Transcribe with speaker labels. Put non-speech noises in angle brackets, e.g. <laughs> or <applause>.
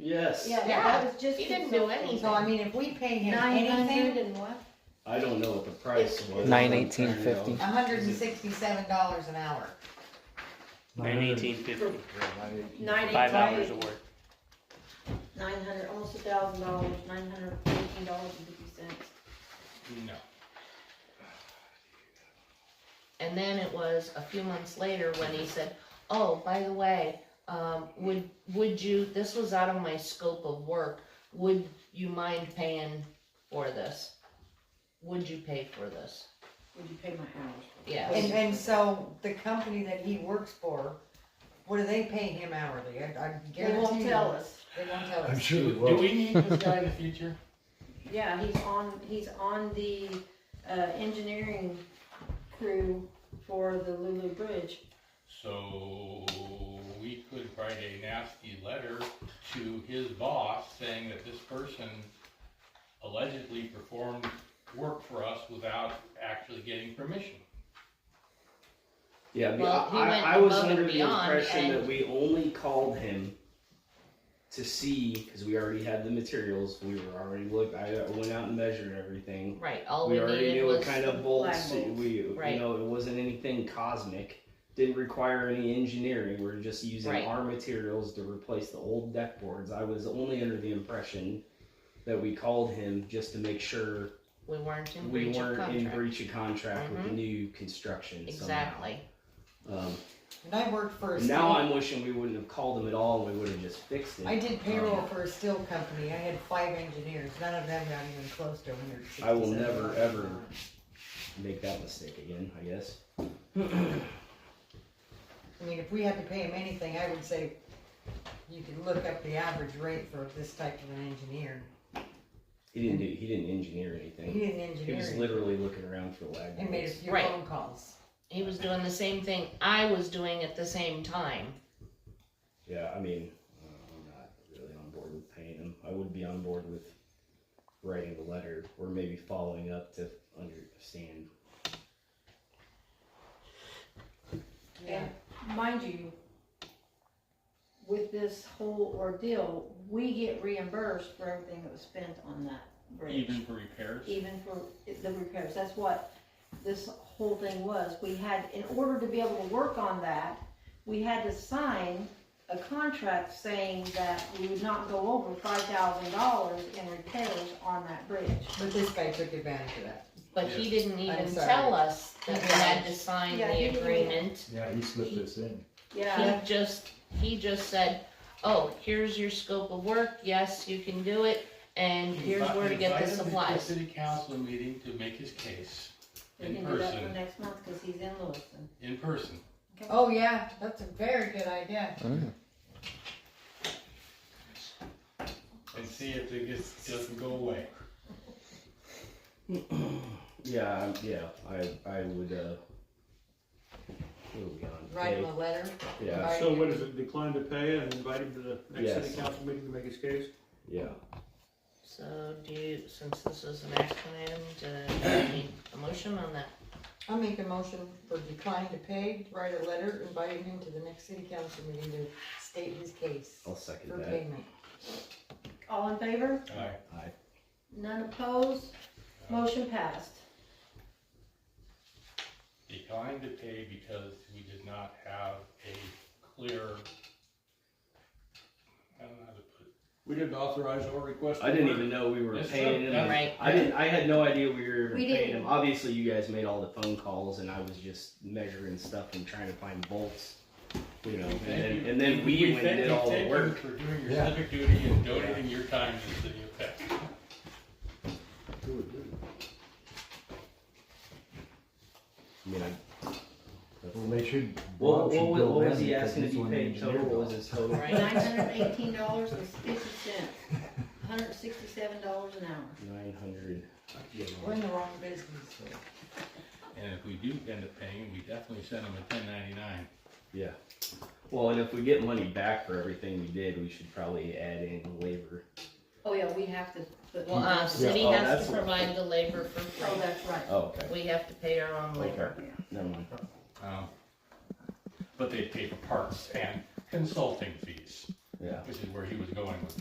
Speaker 1: Yes.
Speaker 2: Yeah,
Speaker 3: Yeah.
Speaker 2: that was just.
Speaker 3: He didn't do
Speaker 2: consulting.
Speaker 3: anything.
Speaker 4: So I mean, if we pay him
Speaker 2: Nine hundred
Speaker 4: anything,
Speaker 2: and what?
Speaker 1: I don't know what the price was.
Speaker 5: Nine eighteen fifty.
Speaker 4: hundred and sixty-seven dollars an hour.
Speaker 6: Nine eighteen fifty,
Speaker 2: Nine
Speaker 6: five hours of
Speaker 2: eighty-five,
Speaker 6: work.
Speaker 2: nine hundred, almost a thousand dollars, nine hundred fifteen dollars and fifty cents.
Speaker 7: No.
Speaker 3: And then it was a few months later when he said, oh, by the way, um, would, would you, this was out of my scope of work, would you mind paying for this? Would you pay for this?
Speaker 2: Would you pay my hours?
Speaker 3: Yeah,
Speaker 4: And, and so the company that he works for, what do they pay him hourly? I, I
Speaker 2: They
Speaker 4: guarantee
Speaker 2: won't
Speaker 4: you,
Speaker 2: tell us.
Speaker 4: They won't tell
Speaker 7: I'm
Speaker 4: us.
Speaker 7: sure we will. Do we need this guy in the future?
Speaker 2: Yeah, he's on, he's on the, uh, engineering crew for the Lulu Bridge.
Speaker 7: So we could write a nasty letter to his boss saying that this person allegedly performed work for us without actually getting permission.
Speaker 1: Yeah, I mean,
Speaker 3: Well, he
Speaker 1: I,
Speaker 3: went
Speaker 1: I was
Speaker 3: above and
Speaker 1: under the
Speaker 3: beyond,
Speaker 1: impression
Speaker 3: and-
Speaker 1: that we only called him to see because we already had the materials. We were already looked. I uh, went out and measured everything.
Speaker 3: right, all
Speaker 1: we
Speaker 3: we
Speaker 1: already
Speaker 3: needed
Speaker 1: knew what
Speaker 3: was,
Speaker 1: kind of bolts
Speaker 2: flag bolts.
Speaker 1: we.
Speaker 3: Right.
Speaker 1: You know, it wasn't anything cosmic. Didn't require any engineering. We're just using
Speaker 3: Right.
Speaker 1: our materials to replace the old deck boards. I was only under the impression that we called him just to make sure
Speaker 3: we weren't in
Speaker 1: we
Speaker 3: breach of
Speaker 1: weren't in
Speaker 3: contract. Mm-hmm.
Speaker 1: breach of contract with the new construction
Speaker 3: Exactly,
Speaker 1: somehow. Um,
Speaker 4: And I worked for a
Speaker 1: and now
Speaker 4: steel,
Speaker 1: I'm wishing we wouldn't have called them at all and we would have just fixed it.
Speaker 4: I did
Speaker 1: Oh.
Speaker 4: payroll for a steel company. I had five engineers. None of them got even close to a hundred and sixty-seven.
Speaker 1: I will never, ever- Make that mistake again, I guess.
Speaker 4: I mean, if we had to pay him anything, I would say you could look up the average rate for this type of an engineer.
Speaker 1: He didn't do, he didn't engineer
Speaker 4: He
Speaker 1: anything.
Speaker 4: didn't
Speaker 1: He
Speaker 4: engineer
Speaker 1: was
Speaker 4: it.
Speaker 1: literally looking around for lag.
Speaker 4: and made a
Speaker 1: bolts.
Speaker 4: few
Speaker 3: Right.
Speaker 4: phone calls.
Speaker 3: he was doing the same thing I was doing at the same time.
Speaker 1: Yeah, I mean, uh, I'm not really on board with paying him. I would be on board with writing a letter or maybe following up to understand.
Speaker 4: Yeah.
Speaker 2: Mind you, with this whole ordeal, we get reimbursed for everything that was spent on that bridge.
Speaker 7: Even for repairs?
Speaker 2: Even for the repairs, that's what this whole thing was, we had, in order to be able to work on that, we had to sign a contract saying that we would not go over five thousand dollars in repairs on that bridge.
Speaker 4: But this guy took advantage of that.
Speaker 3: But he didn't even
Speaker 4: sorry.
Speaker 3: tell us that we had to sign
Speaker 2: Yeah, he
Speaker 3: the
Speaker 2: didn't.
Speaker 3: agreement.
Speaker 8: Yeah, he slipped this in.
Speaker 2: Yeah,
Speaker 3: He just, he just said, oh, here's your scope of work, yes, you can do it, and here's where to get the
Speaker 7: Invite him to
Speaker 3: supplies.
Speaker 7: city council meeting to make his case
Speaker 2: we
Speaker 7: in
Speaker 2: can do that for
Speaker 7: person,
Speaker 2: next month, cause he's in Lewiston.
Speaker 7: in person.
Speaker 4: Oh, yeah, that's a very good idea.
Speaker 7: and see if it gets, doesn't go away.
Speaker 1: Yeah, I'm- yeah, I, I would, uh, what are we on?
Speaker 4: Write him
Speaker 1: Pay-
Speaker 4: a letter.
Speaker 1: Yeah,
Speaker 4: Right.
Speaker 9: So what is it, decline to pay and invite him to the next
Speaker 1: Yes.
Speaker 9: city council meeting to make his case?
Speaker 1: yeah.
Speaker 3: So do you, since this is an action item, do you need a motion on that?
Speaker 4: I'll make a motion for decline to pay, write a letter inviting him to the next city council meeting to state his case
Speaker 1: I'll second
Speaker 4: for
Speaker 1: Oh, that.
Speaker 4: payment.
Speaker 2: All in favor?
Speaker 7: Alright.
Speaker 2: None opposed, motion passed.
Speaker 7: Declined to pay because we did not have a clear, I don't know how to put it.
Speaker 9: We didn't authorize or request.
Speaker 1: I didn't even know we were
Speaker 7: That's
Speaker 1: paying
Speaker 7: true.
Speaker 1: him.
Speaker 7: That's-
Speaker 3: Right.
Speaker 1: I didn't. I had no idea we were even
Speaker 2: We
Speaker 1: paying
Speaker 2: didn't.
Speaker 1: him. Obviously, you guys made all the phone calls, and I was just measuring stuff and trying to find bolts. You know, and then, and then we, went and
Speaker 7: thank
Speaker 1: did
Speaker 7: you,
Speaker 1: all the
Speaker 7: thank you
Speaker 1: work.
Speaker 7: For doing your
Speaker 8: Yeah.
Speaker 7: civic duty and donating your time to the city of Peck.
Speaker 1: I mean, I,
Speaker 8: Well, they should.
Speaker 1: what,
Speaker 8: Bob should
Speaker 1: what, was-
Speaker 8: go
Speaker 1: what was
Speaker 8: in
Speaker 1: he
Speaker 8: because
Speaker 1: asking
Speaker 8: he's
Speaker 1: to be
Speaker 8: one of the
Speaker 1: paid total?
Speaker 8: engineers.
Speaker 1: What was his
Speaker 8: <laughs>
Speaker 1: total?
Speaker 3: Right.
Speaker 2: Nine hundred eighteen dollars and fifty <laughs> cents, hundred sixty-seven dollars an hour.
Speaker 1: Nine hundred.
Speaker 4: We're in the wrong business.
Speaker 7: And if we do end up paying, we definitely send them a ten ninety-nine.
Speaker 1: Well, and if we get money back for everything we did, we should probably add in labor.
Speaker 2: Oh, yeah, we have to put,
Speaker 3: Well,
Speaker 2: oh,
Speaker 3: uh, city
Speaker 1: oh,
Speaker 3: has
Speaker 1: that's
Speaker 3: to
Speaker 1: what-
Speaker 3: provide the labor for free,
Speaker 2: that's right.
Speaker 1: Oh, okay.
Speaker 3: we have to pay our own labor.
Speaker 1: Okay. Never mind.
Speaker 7: Um, But they pay for parts and consulting fees,
Speaker 1: Yeah.
Speaker 7: which is where he was going with that.